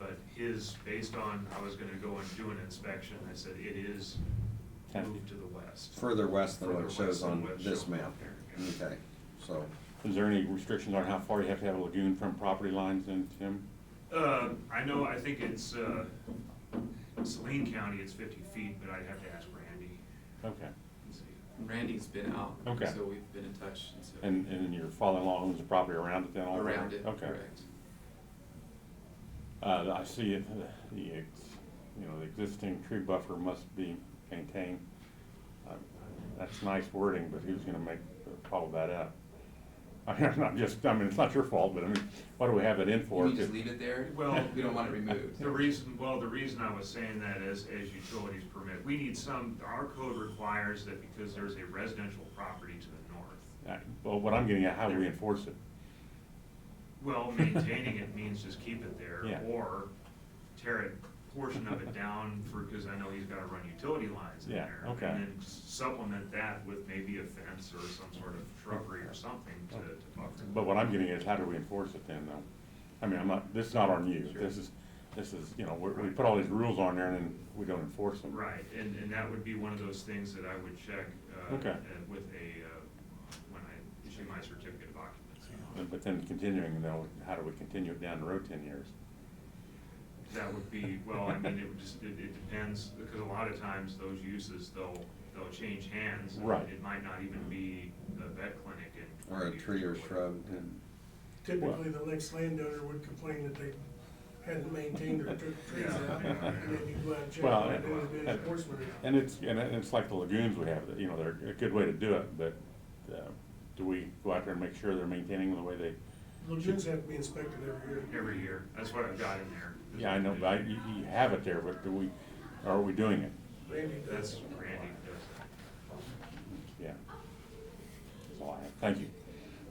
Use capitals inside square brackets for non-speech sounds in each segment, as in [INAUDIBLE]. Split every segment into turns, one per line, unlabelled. uh, is based on, I was gonna go and do an inspection, I said it is
Ten.
moved to the west.
Further west than
Further
what it shows
west than
on
what's
this
shown on
map.
there, yeah.
Okay, so,
Is there any restrictions on how far you have to have a lagoon from property lines in Tim?
Uh, I know, I think it's, uh, Saline County, it's fifty feet, but I'd have to ask Randy.
Okay.
and see.
Randy's been out,
Okay.
so we've been in touch, and so.
And, and your father-in-law owns the property around it then all the way?
Around it,
Okay.
correct.
Uh, I see it, uh, the, ex- you know, the existing tree buffer must be maintained. Uh, That's nice wording, but who's gonna make, follow that up? [LAUGHS] I'm not just, I mean, it's not your fault, but I mean, why do we have it in
Can
for?
we
if-
just leave it there?
Well-
[LAUGHS] We don't want it removed.
The reason, well, the reason I was saying that is, as utilities permit, we need some, our code requires that because there's a residential property to the north.
Uh, Well, what I'm getting at, how do we enforce it?
Well, maintaining it means just keep it there,
Yeah.
or tear a portion of it down for, because I know he's gotta run utility lines in
Yeah,
there.
okay.
And then supplement that with maybe a fence or some sort of shrubbery or something to, to buffer.
But what I'm getting at is how do we enforce it then though? I mean, I'm not, this is not on you.
Sure.
This is, this is, you know, we, we put all these rules on there and then we don't enforce them.
Right, and, and that would be one of those things that I would check, uh,
Okay.
uh, with a, uh, when I issue my certificate of occupancy.
But- But then continuing though, how do we continue it down the road ten years?
That would be, well, I mean, it would just, it, it depends, because a lot of times those uses, they'll, they'll change hands. I mean,
Right.
It might not even be the vet clinic in.
or a tree or shrub,
Typically, the next landowner would complain that they hadn't maintained their tr- trees
Yeah,
out,
yeah.
and then you go out and check,
Well,
and there would be
and-
enforcement.
And it's, and it- it's like the lagoons we have, that, you know, they're a good way to do it, but, uh, do we go out there and make sure they're maintaining the way they?
Lagoons have to be inspected every year.
Every year, that's what I've got in there.
Yeah, I know, but I- you, you have it there, but do we, are we doing it?
Randy
That's
does.
Randy does
Yeah. That's all I have. Thank you.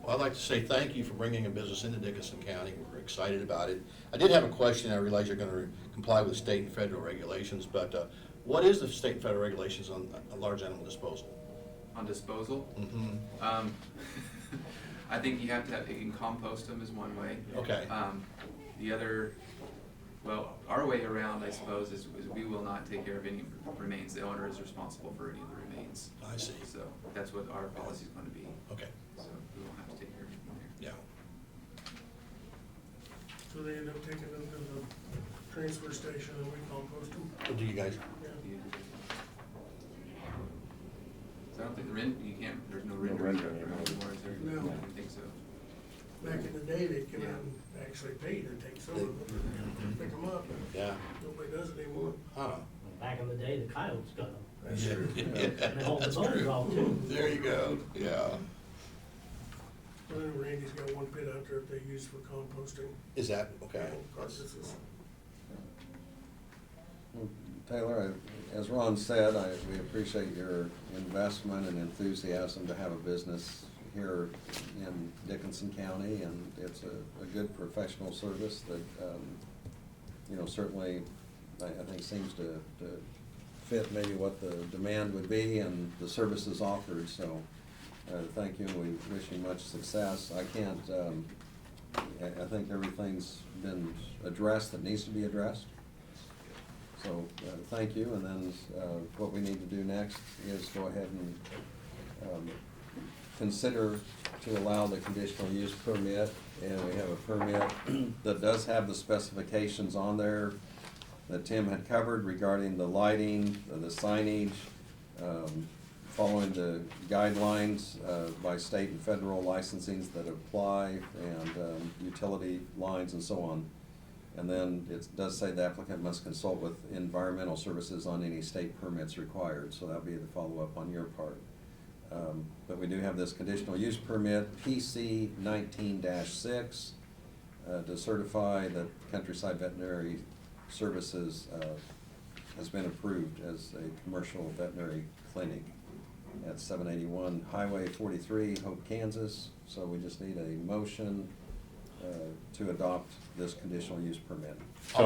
Well, I'd like to say thank you for bringing a business into Dickinson County. We're excited about it. I did have a question. I realize you're going to comply with state and federal regulations, but uh, what is the state and federal regulations on uh, large animal disposal?
On disposal,
Mhm.
um, [LAUGHS] I think you have to have, you can compost them is one way.
Okay.
Um, the other, well, our way around, I suppose, is, is we will not take care of any remains. The owner is responsible for any of the remains.
I see.
So that's what our policy is gonna be.
Okay,
So we won't have to take care of anything there.
yeah.
So they end up taking them to the transfer station, and we compost them.
What do you guys,
Yeah.
So I don't think the rent, you can't, there's no render
render
anymore,
anymore.
is there?
No.
I don't think so.
Back in the day, they'd come out and actually pay to take some of them, pick them up,
yeah,
nobody does it anymore.
huh?
Back in the day, the coyotes got them.
That's
[LAUGHS]
true.
And they hauled the
That's
bones
true.
off too.
There you go, yeah.
I know Randy's got one pit out there that they use for composting.
Is that, okay.
Carcasses.
Taylor, I- as Ron said, I, we appreciate your investment and enthusiasm to have a business here in Dickinson County, and it's a, a good professional service that, um, you know, certainly, I, I think seems to, to fit maybe what the demand would be and the services offered, so, uh, thank you, and we wish you much success. I can't, um, I, I think everything's been addressed that needs to be addressed. So, uh, thank you, and then, uh, what we need to do next is go ahead and, um, consider to allow the conditional use permit, and we have a permit [CLEARS THROAT] that does have the specifications on there that Tim had covered regarding the lighting, uh, the signage, um, following the guidelines, uh, by state and federal licensings that apply, and, um, utility lines and so on. And then it does say the applicant must consult with environmental services on any state permits required, so that'll be the follow-up on your part. Um, But we do have this conditional use permit, PC nineteen six, uh, to certify that Countryside Veterinary Services uh, has been approved as a commercial veterinary clinic at seven eighty-one Highway forty-three, Hope, Kansas. So we just need a motion uh, to adopt this conditional use permit.
I'll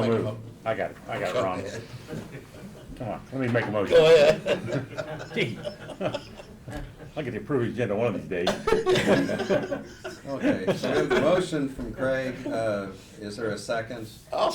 So
make a
moved.
mo-
I got it. I got it,
Go
Ron.
ahead.
Come on, let me make a motion.
Go ahead.
Gee.
[LAUGHS]
I'll get the approved agenda one of these days.
Okay, so we have the motion from Craig. Uh, Is there a second?
I'll